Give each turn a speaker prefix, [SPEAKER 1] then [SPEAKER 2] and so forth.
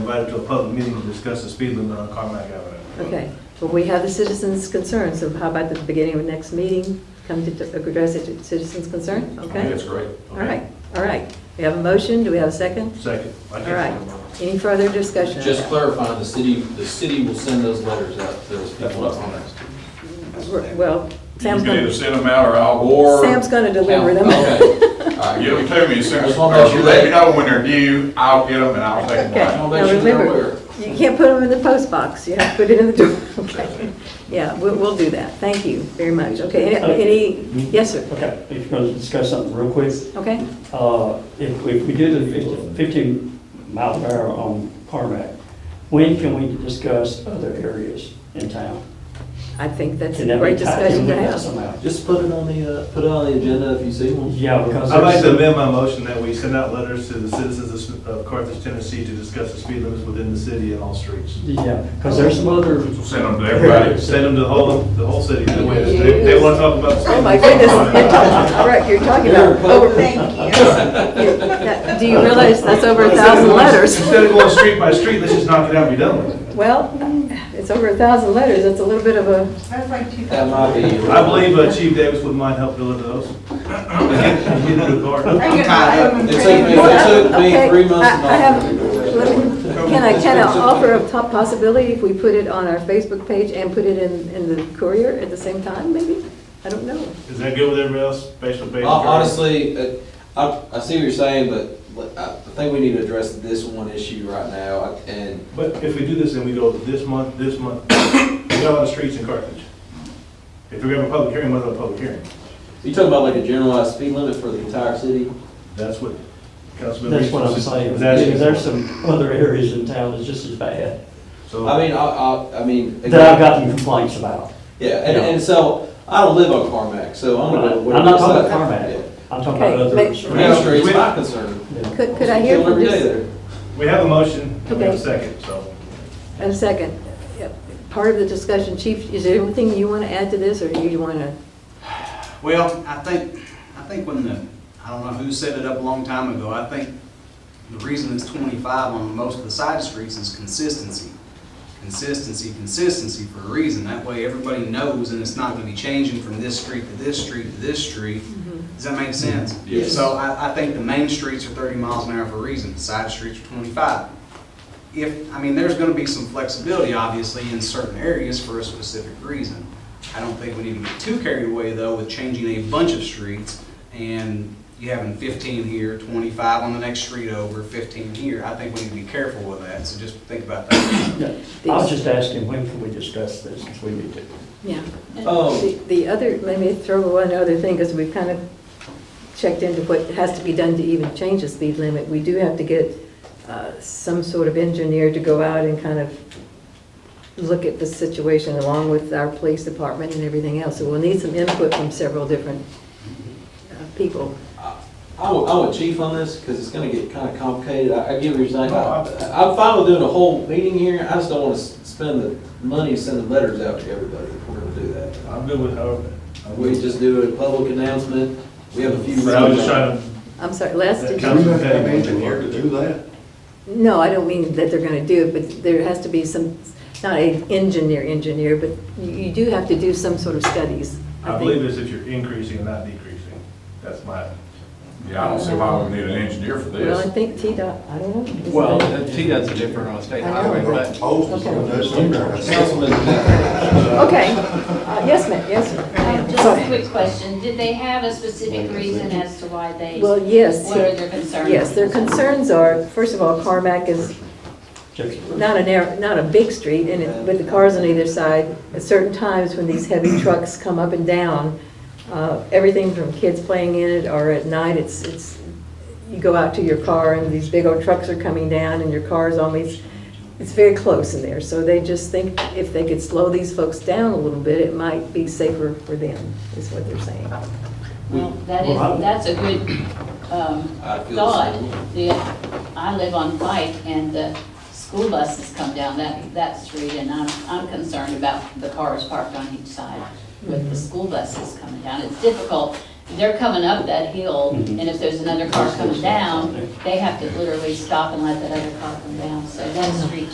[SPEAKER 1] invited to a public meeting to discuss the speed limit on Carmack Avenue.
[SPEAKER 2] Okay, well, we have the citizens' concern, so how about the beginning of next meeting, come to to address the citizens' concern,
[SPEAKER 1] I think
[SPEAKER 2] okay?
[SPEAKER 1] that's great.
[SPEAKER 2] All right, all right. We have a motion, do we have a second?
[SPEAKER 1] Second. I
[SPEAKER 2] All
[SPEAKER 1] can't
[SPEAKER 2] right.
[SPEAKER 1] remember.
[SPEAKER 2] Any further discussion? on
[SPEAKER 3] Just
[SPEAKER 2] that?
[SPEAKER 3] clarifying, the city, the city will send those letters out to those
[SPEAKER 1] That's
[SPEAKER 3] people
[SPEAKER 1] what
[SPEAKER 3] up
[SPEAKER 1] I'm
[SPEAKER 3] on
[SPEAKER 1] gonna
[SPEAKER 3] there.
[SPEAKER 1] ask.
[SPEAKER 2] Well,
[SPEAKER 4] You
[SPEAKER 2] Sam's
[SPEAKER 4] can
[SPEAKER 2] going
[SPEAKER 4] either
[SPEAKER 2] to,
[SPEAKER 4] send them out or I'll war.
[SPEAKER 2] Sam's going to deliver them.
[SPEAKER 3] Okay, all right.
[SPEAKER 4] Give them to me as soon as,
[SPEAKER 3] Just wanna make sure
[SPEAKER 4] let
[SPEAKER 3] they-
[SPEAKER 4] me know when they're due, I'll get them and I'll take them
[SPEAKER 2] Okay,
[SPEAKER 4] back.
[SPEAKER 3] I'll
[SPEAKER 2] now
[SPEAKER 3] make sure they're
[SPEAKER 2] remember, you can't put them in the post box, you have to put it in the door, okay? Yeah, we'll, we'll do that, thank you very much, okay? Any, any- yes, sir,
[SPEAKER 5] Okay, if you're going to discuss something real quick,
[SPEAKER 2] okay?
[SPEAKER 5] uh, if if we do the 50 15 mile per hour on Carmack, when can we discuss other areas in town?
[SPEAKER 2] I think that's
[SPEAKER 5] Can
[SPEAKER 2] a
[SPEAKER 5] that
[SPEAKER 2] great
[SPEAKER 5] be tied
[SPEAKER 2] discussion
[SPEAKER 5] in
[SPEAKER 2] to
[SPEAKER 5] with that
[SPEAKER 2] have.
[SPEAKER 5] somehow?
[SPEAKER 3] Just put it on the, uh, put it on the agenda if you see one.
[SPEAKER 5] Yeah, because.
[SPEAKER 1] I'd like to
[SPEAKER 5] there's-
[SPEAKER 1] amend my motion that we send out letters to the citizens of- of Carthage, Tennessee to discuss the speed limits within the city and all streets.
[SPEAKER 5] Yeah, because there's some other.
[SPEAKER 4] So Send them to everybody.
[SPEAKER 1] Send them to the whole, the whole city. They they want to talk about. the speed
[SPEAKER 2] Oh, my
[SPEAKER 1] limit.
[SPEAKER 2] goodness, all right, you're talking about over,
[SPEAKER 6] Thank you.
[SPEAKER 2] that- do you realize that's over a thousand letters?
[SPEAKER 1] Instead of going street by street, let's just knock it out and be done with it.
[SPEAKER 2] Well, it's over a thousand letters, that's a little bit of a,
[SPEAKER 6] That's like two
[SPEAKER 3] That
[SPEAKER 6] thousand.
[SPEAKER 3] might be.
[SPEAKER 1] I believe uh, Chief Davis would mind help deliver those. Get it to the guard.
[SPEAKER 6] I'm gonna buy them and
[SPEAKER 3] It took
[SPEAKER 6] trade
[SPEAKER 3] me,
[SPEAKER 6] them up.
[SPEAKER 3] it took me
[SPEAKER 2] Okay,
[SPEAKER 3] three months.
[SPEAKER 2] I-
[SPEAKER 3] and
[SPEAKER 2] I have-
[SPEAKER 3] all.
[SPEAKER 2] let me- can I, can I offer a top possibility if we put it on our Facebook page and put it in, in the courier at the same time, maybe? I don't know.
[SPEAKER 1] Is that good with everybody else? Facial
[SPEAKER 3] Hon-
[SPEAKER 1] page?
[SPEAKER 3] Honestly, uh, I, I see what you're saying, but but I I think we need to address this one issue right now, and
[SPEAKER 1] But if we do this, then we go this month, this month, we got a lot of streets in Carthage. If we're gonna have a public hearing, we'll have a public hearing.
[SPEAKER 3] you talking about like a generalized speed limit for the entire city?
[SPEAKER 1] That's what Councilman.
[SPEAKER 5] That's what I'm
[SPEAKER 1] Reese was-
[SPEAKER 5] saying,
[SPEAKER 1] was asking
[SPEAKER 5] because there's
[SPEAKER 1] for.
[SPEAKER 5] some other areas in town that's just as bad,
[SPEAKER 1] So,
[SPEAKER 3] I mean, I, I, I mean.
[SPEAKER 5] that I've gotten complaints about.
[SPEAKER 3] Yeah, and,
[SPEAKER 5] Yeah.
[SPEAKER 3] and so, I don't live on Carmack, so I'm gonna.
[SPEAKER 5] I'm not talking about
[SPEAKER 3] Yeah.
[SPEAKER 5] Carmack, I'm talking
[SPEAKER 2] Okay,
[SPEAKER 5] about other.
[SPEAKER 2] make-
[SPEAKER 5] streets.
[SPEAKER 3] Main Street's my concern.
[SPEAKER 5] Yeah.
[SPEAKER 2] Could, could I hear
[SPEAKER 3] Kill
[SPEAKER 2] from
[SPEAKER 3] every day
[SPEAKER 2] just,
[SPEAKER 3] there.
[SPEAKER 1] we have a motion, and we have a
[SPEAKER 2] Okay.
[SPEAKER 1] second, so.
[SPEAKER 2] a second? Part of the discussion, Chief, is there anything you want to add to this, or do you want to?
[SPEAKER 7] Well, I think, I think when the, I don't know who set it up a long time ago, I think the reason it's twenty-five on most of the side streets is consistency. Consistency, consistency for a reason, that way everybody knows and it's not gonna be changing from this street to this street to this street. Does that make sense?
[SPEAKER 3] Yes.
[SPEAKER 7] So I, I think the main streets are thirty miles an hour for a reason, side streets are twenty-five. If, I mean, there's gonna be some flexibility, obviously, in certain areas for a specific reason. I don't think we need to get too carried away, though, with changing a bunch of streets and you having fifteen here, twenty-five on the next street over, fifteen here. I think we need to be careful with that, so just think about that.
[SPEAKER 5] Yeah. I was just asking, when can we discuss this, if we need to?
[SPEAKER 2] Yeah.
[SPEAKER 3] Oh.
[SPEAKER 2] The- The other, let me throw one other thing, because we've kind of checked into what has to be done to even change the speed limit. We do have to get uh, some sort of engineer to go out and kind of look at the situation along with our police department and everything else. So we'll need some input from several different uh, people.
[SPEAKER 3] I would, I would chief on this, because it's gonna get kind of complicated, I, I get what you're saying,
[SPEAKER 1] No,
[SPEAKER 3] I- I'm fine with doing a whole meeting here, I just don't want to spend the money sending letters out to everybody if we're gonna do that.
[SPEAKER 1] I'm good with however. I'm
[SPEAKER 3] We
[SPEAKER 1] good.
[SPEAKER 3] just do a public announcement, we have a few.
[SPEAKER 1] But I was just trying to,
[SPEAKER 2] I'm sorry, Les,
[SPEAKER 1] that
[SPEAKER 2] did
[SPEAKER 8] Do we
[SPEAKER 2] you?
[SPEAKER 1] Uh,
[SPEAKER 8] have
[SPEAKER 1] Councilman
[SPEAKER 8] to have an
[SPEAKER 1] Petty.
[SPEAKER 8] engineer to do that?
[SPEAKER 2] No, I don't mean that they're going to do it, but there has to be some, not an engineer, engineer, but you- you do have to do some sort of studies.
[SPEAKER 1] I
[SPEAKER 2] think.
[SPEAKER 1] believe it's if you're increasing and not decreasing. That's my,
[SPEAKER 4] Yeah, I don't see why we need an engineer for
[SPEAKER 2] Well, I
[SPEAKER 4] this.
[SPEAKER 2] think TDOT, I don't know. Is
[SPEAKER 9] Well, uh,
[SPEAKER 2] that-
[SPEAKER 9] TDOT's different on a state
[SPEAKER 2] I know.
[SPEAKER 9] highway, but
[SPEAKER 8] Proposals
[SPEAKER 2] Okay.
[SPEAKER 8] on those emails.
[SPEAKER 2] Okay, Uh, yes, ma'am, yes, ma'am.
[SPEAKER 10] Um, Just a
[SPEAKER 2] Sorry.
[SPEAKER 10] quick question, did they have a specific reason as to why they,
[SPEAKER 2] Well,
[SPEAKER 10] what
[SPEAKER 2] yes,
[SPEAKER 10] are their concerns?
[SPEAKER 2] yes, their concerns are, first of all, Carmack is
[SPEAKER 5] Jefferson.
[SPEAKER 2] not an, air- not a big street, and it- with the cars on either side, at certain times when these heavy trucks come up and down, uh, everything from kids playing in it, or at night, it's, it's, you go out to your car, and these big old trucks are coming down, and your car's always, it's very close in there, so they just think if they could slow these folks down a little bit, it might be safer for them, is what they're saying.
[SPEAKER 10] Well, that is, that's a good um,
[SPEAKER 3] I feel
[SPEAKER 10] thought.
[SPEAKER 3] the
[SPEAKER 10] The- I live on Pike and the school buses come down that, that street and I'm, I'm concerned about the cars parked on each side with the school buses coming down. It's difficult they're coming up that hill,
[SPEAKER 5] Mhm.
[SPEAKER 10] and if there's another car coming down, they have to literally stop and let that other car come down, so that street